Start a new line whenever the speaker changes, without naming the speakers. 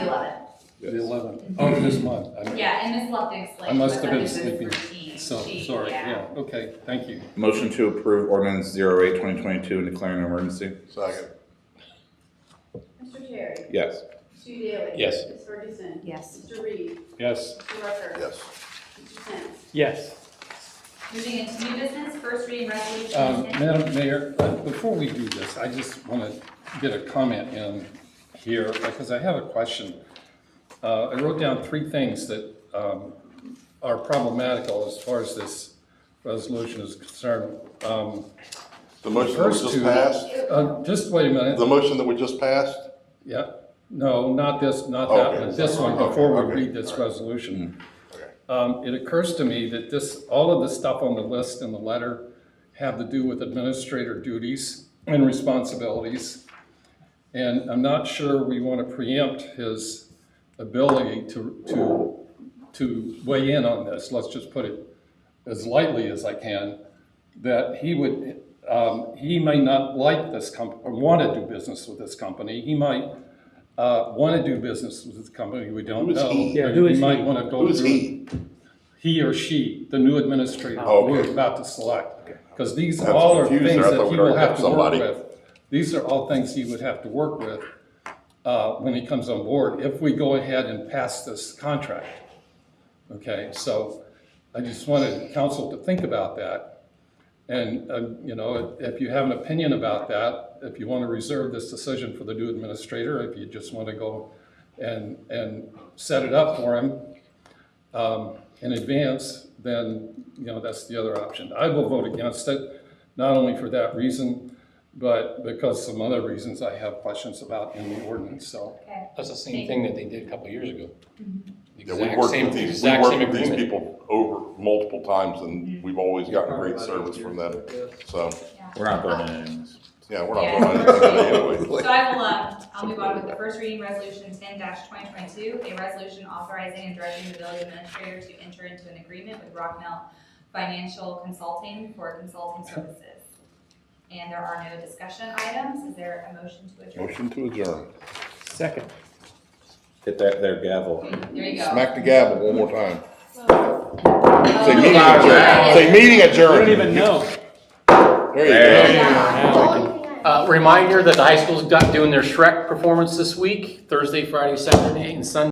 eleventh.
Yes.
the eleventh of Oh, this month. I mean,
Yeah, and Ms. Lufton
I
like
must
was
have
under
been
this
sleeping,
routine.
so,
She-
sorry, yeah, okay, thank you.
Motion to approve ordinance 08-2022 and declaring an emergency?
Second.
Mr. Terry.
Yes.
Mr. Daly.
Yes.
Ms. Ferguson.
Yes.
Mr. Reed.
Yes,
Mr. Rucker.
Yes.
Mr. Sins.
yes,
Moving into new business, first reading resolution.
um, Madam Mayor, uh, before we do this, I just want to get a comment in here, because I have a question. Uh, I wrote down three things that um, are problematical as far as this resolution is concerned. Um,
The motion that was
First
just
two-
passed,
uh, Just wait a minute,
the motion that we just passed,
Yeah, no, not this, not that
Okay.
one, this one,
Okay,
before we
okay,
read this
all right. Mm.
resolution.
Okay.
Um, it occurs to me that this, all of the stuff on the list in the letter have to do with administrator duties and responsibilities. And I'm not sure we want to preempt his ability to, to, to weigh in on this, let's just put it as lightly as I can, that he would, um, he may not like this company, or want to do business with this company. He might uh, want to do business with this company, we don't
Who is
know.
he?
Yeah, who is
might
he?
want to go
who's
through-
he?
He or she, the new administrator
Oh, okay.
we're about to select. Because these
I was
all are
confused
things
there. I
that
thought
he
we'd
will
already
have
have
to work
somebody.
with. These are all things he would have to work with uh, when he comes on board, if we go ahead and pass this contract. Okay, so I just wanted council to think about that. And, uh, you know, if you have an opinion about that, if you want to reserve this decision for the new administrator, if you just want to go and, and set it up for him um, in advance, then, you know, that's the other option. I will vote against it, not only for that reason, but because some other reasons I have questions about in the ordinance, so.
Okay,
That's the same thing that they did a couple of years ago. The
Yeah, we
exact
worked
same-
with these, we
exact
worked
same
with these
agreement.
people over multiple times and we've always gotten great service from them. So,
yeah.
We're not burning any of these.
yeah, we're
Yeah.
not going to anyway.
So I will, um, I'll move on with the first reading resolution ten twenty twenty-two, a resolution authorizing and directing the village administrator to enter into an agreement with Rocknell Financial Consulting for consulting services. And there are no discussion items. Is there a motion to adjourn?
Motion to adjourn.
second.
Hit that there gavel.
There you go.
Smack the gavel one more time. Say
Oh,
meeting
yeah.
adjourned. Say meeting
I don't
adjourned.
even know.
There you go.
Uh, Reminder that the high school's got- doing their Shrek performance this week, Thursday, Friday, Saturday, and Sunday.